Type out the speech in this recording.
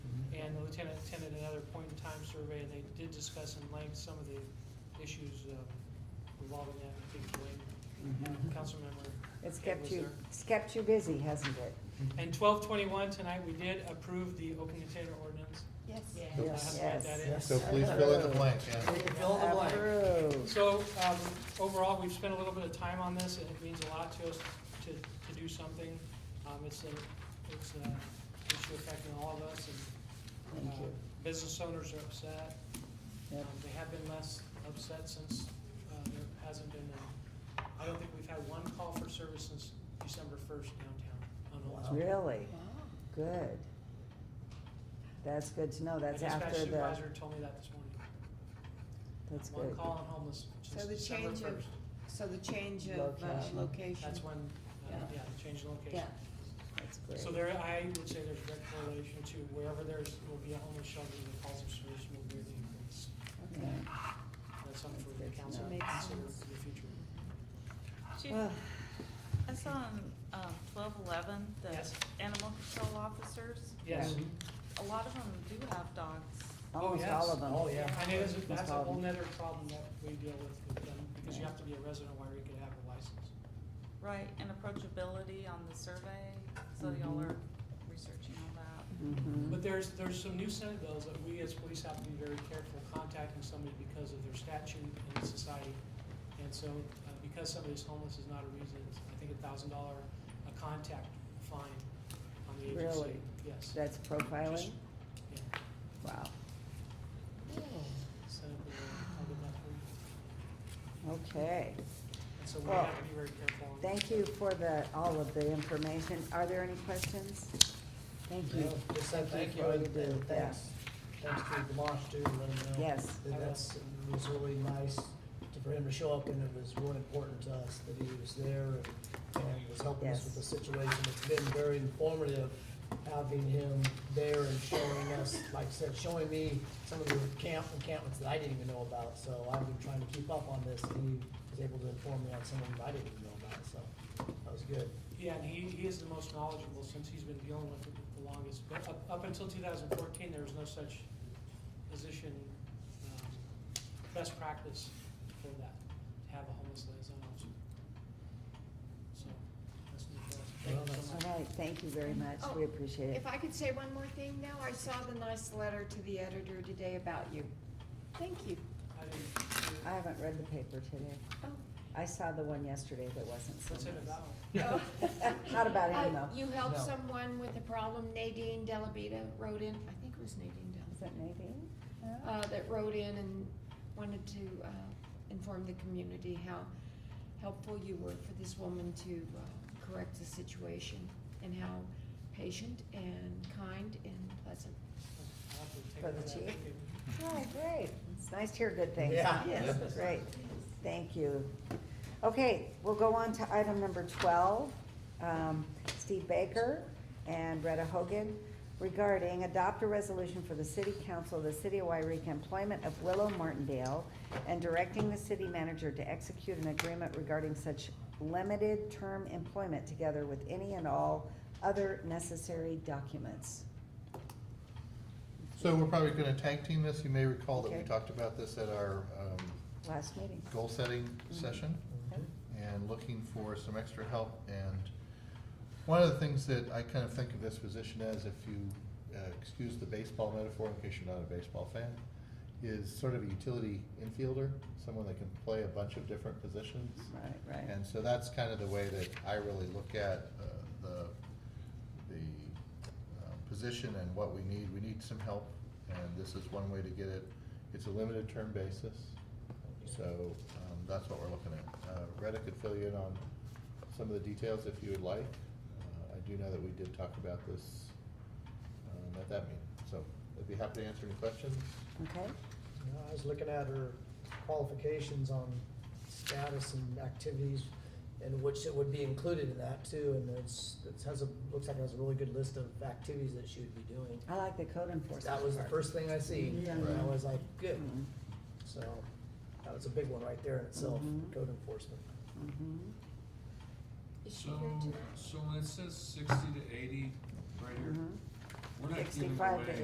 Lieutenant attended another point-in-time survey, and they did discuss in length some of the issues uh, revolving that, I think, Dwayne, Councilmember. It's Ed kept was you, there. it's kept you busy, hasn't it? And twelve twenty-one, tonight, we did approve the open container ordinance. Yes. I Yes. have to add that in. So please fill in the blank, yeah. Fill in the blank. Approved. So, um, overall, we've spent a little bit of time on this, and it means a lot to us to, to do something. Um, it's a, it's a issue affecting all of us, and, Thank uh, you. business owners are upset. Yep. Um, They have been less upset since, uh, there hasn't been, a- I don't think we've had one call for service since December first downtown on Old. Really? Good. That's good to know. That's The after dispatch the, supervisor told me that this morning. that's One good. call on homeless since So the December change first. of, so the change of uh, Location. location. That's when, uh, Yeah. yeah, the change in location. Yeah. That's great. So there, I would say there's direct correlation to wherever there's, will be a homeless shelter, the calls of service will be the increase. Okay. Yeah. That's something for the That's council to good to know. consider for the future. Chief, Well, I saw on um, twelve eleven, the Yes. animal control officers, Yes. Yeah. a lot of them do have dogs. Almost yes. all of them. Oh, yeah. And it is, that's a whole Problem. nother problem that we deal with with them, because you have to be a resident where you can have a license. Right, and approachability on the survey, so y'all Mhm. are researching all that. Mhm. But there's, there's some new Senate bills that we as police have to be very careful contacting somebody because of their statute in society. And so, uh, because somebody's homeless is not a reason, it's, I think a thousand dollar a contact fine on the agency. Really? Yes. That's profiling? Just- yeah. Wow. Senate bill, I'll get that for you. Okay. And so we Well, have to be very careful. on- Thank you for the, all of the information. Are there any questions? Thank you. Just said thank you, for all and do. and Yeah. thanks, thanks to Demarsh too, letting him know. Yes. that That's, it was really nice to- for him to show up, and it was really important to us that he was there and- and was helping us with the Yes. situation. It's been very informative having him there and showing us, like I said, showing me some of the camp encampments that I didn't even know about. So I've been trying to keep up on this, and he was able to inform me on some of them I didn't even know about, so that was good. Yeah, and he, he is the most knowledgeable since he's been dealing with it the longest. But up, up until two thousand fourteen, there was no such position, um, best practice for that, to have a homeless liaison officer. So, that's new for us. Thank you so Well, much. All right, thank you very much. Oh, We appreciate it. If I could say one more thing now, I saw the nice letter to the editor today about you. Thank you. I didn't- I haven't read the paper today. Oh. I saw the one yesterday that wasn't so What's it nice. about? Oh. Not about him, Uh, though. You helped No. someone with a problem, Nadine Delabita wrote in, I think it was Nadine Is Delabita, that Nadine? uh, that wrote in and wanted to, uh, inform the community how helpful you were for this woman to, uh, correct the situation and how patient and kind and pleasant. I'll have to take For the that. chief? Thank you. Oh, great. It's nice to hear good things. Yeah. Yes, great. Thank you. Okay, we'll go on to item number twelve. Um, Steve Baker and Retta Hogan regarding adopt a resolution for the city council of the city of Wairika employment of Willow Martindale and directing the city manager to execute an agreement regarding such limited term employment together with any and all other necessary documents. So we're probably gonna tag team this, you may recall that we Okay. talked about this at our, um, Last meeting. goal-setting Mm-hmm. session Okay. and looking for some extra help. And one of the things that I kind of think of this position as, if you uh, excuse the baseball metaphor, in case you're not a baseball fan, is sort of a utility infielder, someone that can play a bunch of different positions. Right, right. And so that's kind of the way that I really look at uh, the, the uh, position and what we need. We need some help, and this is one way to get it. It's a limited term basis, so um, that's what we're looking at. Uh, Retta could fill you in on some of the details if you would like. Uh, I do know that we did talk about this um, at that meeting, so I'd be happy to answer any questions. Okay, You know, I was looking at her qualifications on status and activities, and which it would be included in that too, and it's, it has a, looks like it has a really good list of activities that she would be doing. I like the code enforcement. That was the part. first thing I see, and I Right. was like, good, Mhm, so, that was a big one right there in itself, Mhm. code enforcement. mhm. Is she So, here tonight? so when it says sixty to eighty right here, Mhm. Mm-hmm. we're not giving 65 to away